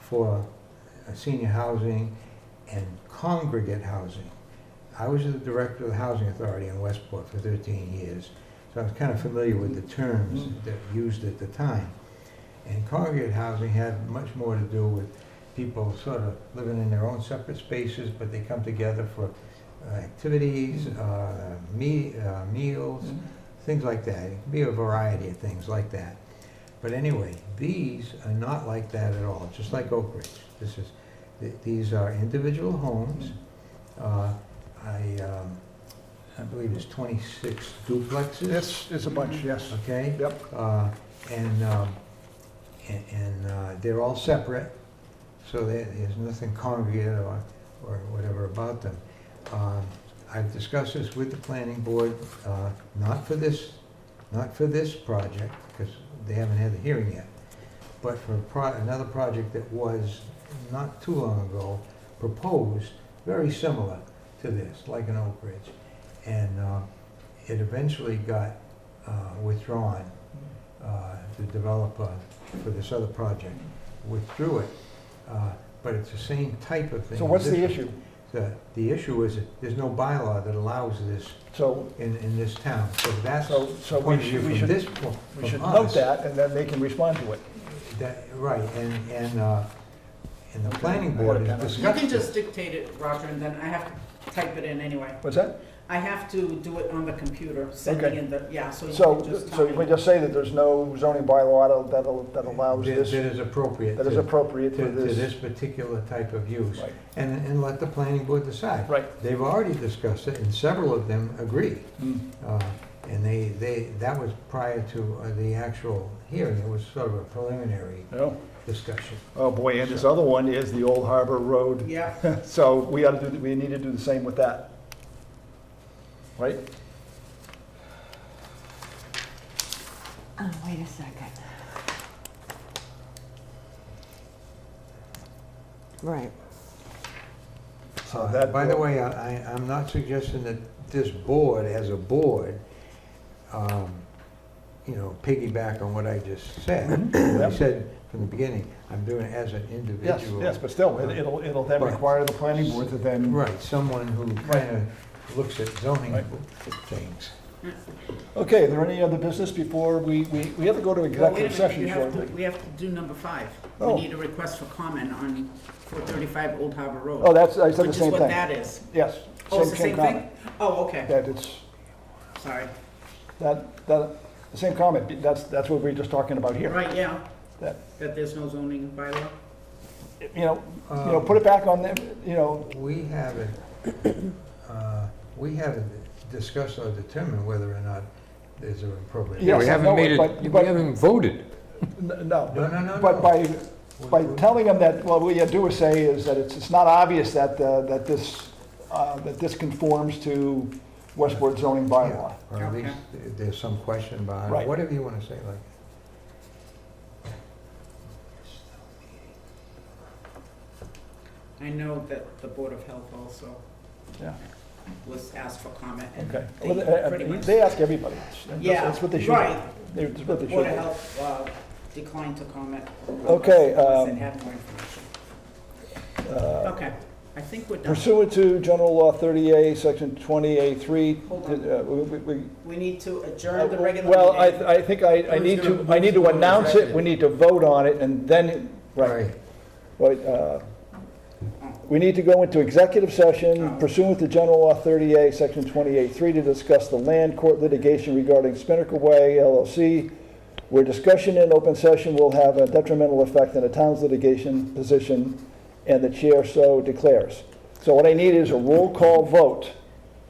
for uh, senior housing and congregate housing. I was the director of the Housing Authority in Westport for 13 years, so I was kind of familiar with the terms that were used at the time. And congregate housing had much more to do with people sort of living in their own separate spaces, but they come together for uh, activities, uh, me- uh, meals, things like that. It can be a variety of things like that. But anyway, these are not like that at all, just like Oak Ridge. This is, th- these are individual homes. Uh, I, um, I believe it's 26 duplexes. It's, it's a bunch, yes. Okay? Yep. Uh, And, um, and- and uh, they're all separate, so there- there's nothing congregate or, or whatever about them. Um, I've discussed this with the planning board, uh, not for this, not for this project, because they haven't had the hearing yet, but for a pro- another project that was not too long ago proposed, very similar to this, like an Oak Ridge. And uh, it eventually got uh, withdrawn uh, the developer for this other project withdrew it, uh, but it's the same type of thing. So what's the This- issue? The, the issue is, that there's no bylaw that allows this So, in, in this town, so that's the so, so point we of view should, we from should, this, po- from we should us, note that, and then they can respond to it. that- Right, and, and, uh, and the planning board I has had a pen. discussed. You can it. just dictate it, Roger, and then I have to type it in anyway. What's that? I have to do it on the computer, Okay. sending in the, yeah, so you So, can just so tell we me. just say that there's no zoning bylaw that'll, that allows That- this, That is appropriate that is to, appropriate to for to this this. particular type of use, Right, and, and let the planning board decide. Right. They've already discussed it, and several of them agree. Mm. Uh, And they, they, that was prior to uh, the actual hearing, it was sort of a preliminary Oh, discussion. oh boy, and this other one is the Old Harbor Road. Yeah, So we ought to do, we need to do the same with that. Right? Oh, wait a second. Right. So Uh, that- By the way, I, I- I'm not suggesting that this board, as a board, um, you know, piggyback on what I just said. I Mm-hmm. Yep. said from the beginning, I'm doing it as an Yes, individual. yes, but still, it- it'll, it'll then Right. require the planning board to then. Right, someone who kind of looks at zoning Right. things. Okay, are there any other business before we, we, we have to go to well, executive wait a minute, session we have to, shortly? we have to do number five. We Oh. need a request for comment on four thirty-five Old Harbor Road. Oh, that's, I said the same Which is what thing. that is. Yes. Oh, it's the same comment. thing? Oh, okay, That it's, sorry. that, that, the same comment, that's, that's what we were just talking about here. Right, yeah, That, that there's no zoning bylaw. you know, you know, put it back on them, you know, Um, We haven't, uh, we haven't discussed or determined whether or not there's an appropriate. Yeah, Yeah, we Yes, I know haven't made it, but- it, we but- haven't voted. n- no. No, no, no, no. But by, We- by we- telling them that, well, what you do is say is that it's, it's not obvious that, uh, that this, uh, that this conforms to Westport zoning bylaw. Yeah, Or at Okay. least th- there's some question behind Right. it, whatever you want to say like. I know that the Board of Health also Yeah. was asked for comment, and Okay. they Well, they- uh, pretty much. They ask everybody. That's- Yeah, That's what they should. do. right. They- That's what they should. Board of do. Health uh, declined to comment. Okay, Unless um, it had more information. Uh, Okay, I think we're done. Pursuant to General Law 30A, Section 20A3. Hold uh, we- we- we- We need to adjourn the regular meeting. Uh, Well, I, I think I, I Who's need to, gonna- I need to who's gonna announce it, executive? we need to vote on it, and then, right, right. uh, We need to go into executive session pursuant to General Law 30A, Section 28.3, to discuss the land court litigation regarding Spinnaker Way LLC, where discussion in open session will have a detrimental effect on the town's litigation position, and the chair so declares. So what I need is a roll call vote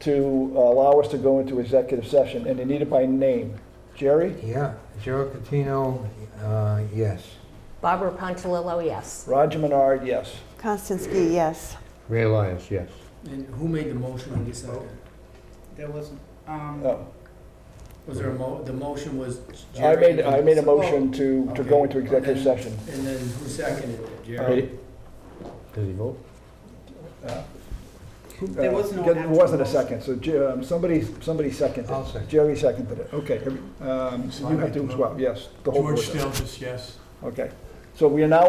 to allow us to go into executive session, and you need it by name. Jerry? Yeah, Gerald Catino, uh, yes. Barbara Pontilillo, yes. Roger Menard, yes. Konstansky, yes. Ray Elias, yes. And who made the motion on this second? There was, um, Oh, Was there a mo, the motion was I Jerry? made, I made a motion to, to go into executive session. And then who seconded it? Jerry? Does he vote? There was no Uh, There wasn't a actual second, so Je- um, somebody, somebody seconded. I'll second. Jerry seconded it, okay. every- um, So you have to as well, yes. the whole George board does. Stelzis, yes. Okay, so we are now